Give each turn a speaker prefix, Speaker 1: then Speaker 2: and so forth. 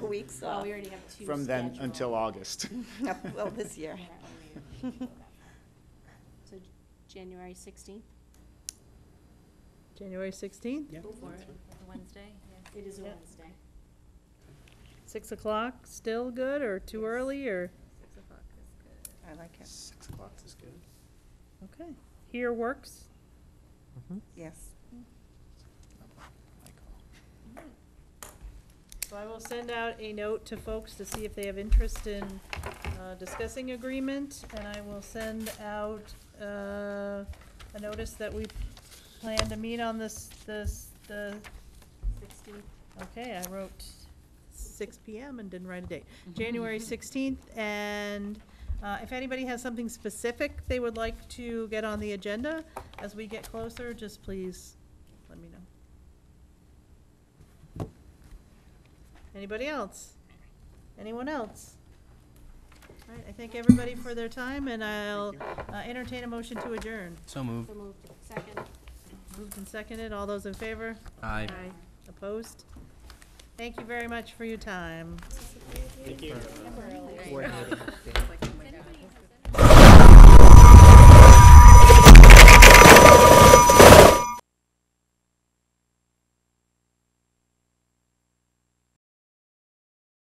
Speaker 1: weeks
Speaker 2: Well,
Speaker 1: off.
Speaker 2: we already have two.
Speaker 3: From then
Speaker 2: scheduled.
Speaker 3: until August.
Speaker 1: Well, this year.
Speaker 2: Yeah, only a- So J- January sixteenth?
Speaker 4: January 16th,
Speaker 5: Yep.
Speaker 6: Wednesday,
Speaker 2: It is a
Speaker 4: Yep.
Speaker 2: Wednesday.
Speaker 4: 6 o'clock, still good, or too early, or,
Speaker 6: six o'clock is good.
Speaker 1: I like it,
Speaker 5: Six o'clock is good.
Speaker 4: okay. Here works,
Speaker 1: yes.
Speaker 4: so I will send out a note to folks to see if they have interest in uh, discussing agreement, and I will send out uh, a notice that we plan to meet on this, this, the,
Speaker 2: Sixteenth.
Speaker 4: okay, I wrote Mhm. 6 PM and didn't write a date. January 16th, and uh, if anybody has something specific they would like to get on the agenda, as we get closer, just please let me know. Anybody else? Anyone else? All right, I thank everybody for their time, and I'll uh, entertain a motion to adjourn.
Speaker 5: So moved.
Speaker 2: So moved. Second.
Speaker 4: Moved and seconded, all those in favor?
Speaker 5: Aye.
Speaker 4: Opposed? Thank you very much for your time.
Speaker 5: Thank you.
Speaker 2: Remember early.
Speaker 6: Right. It's like-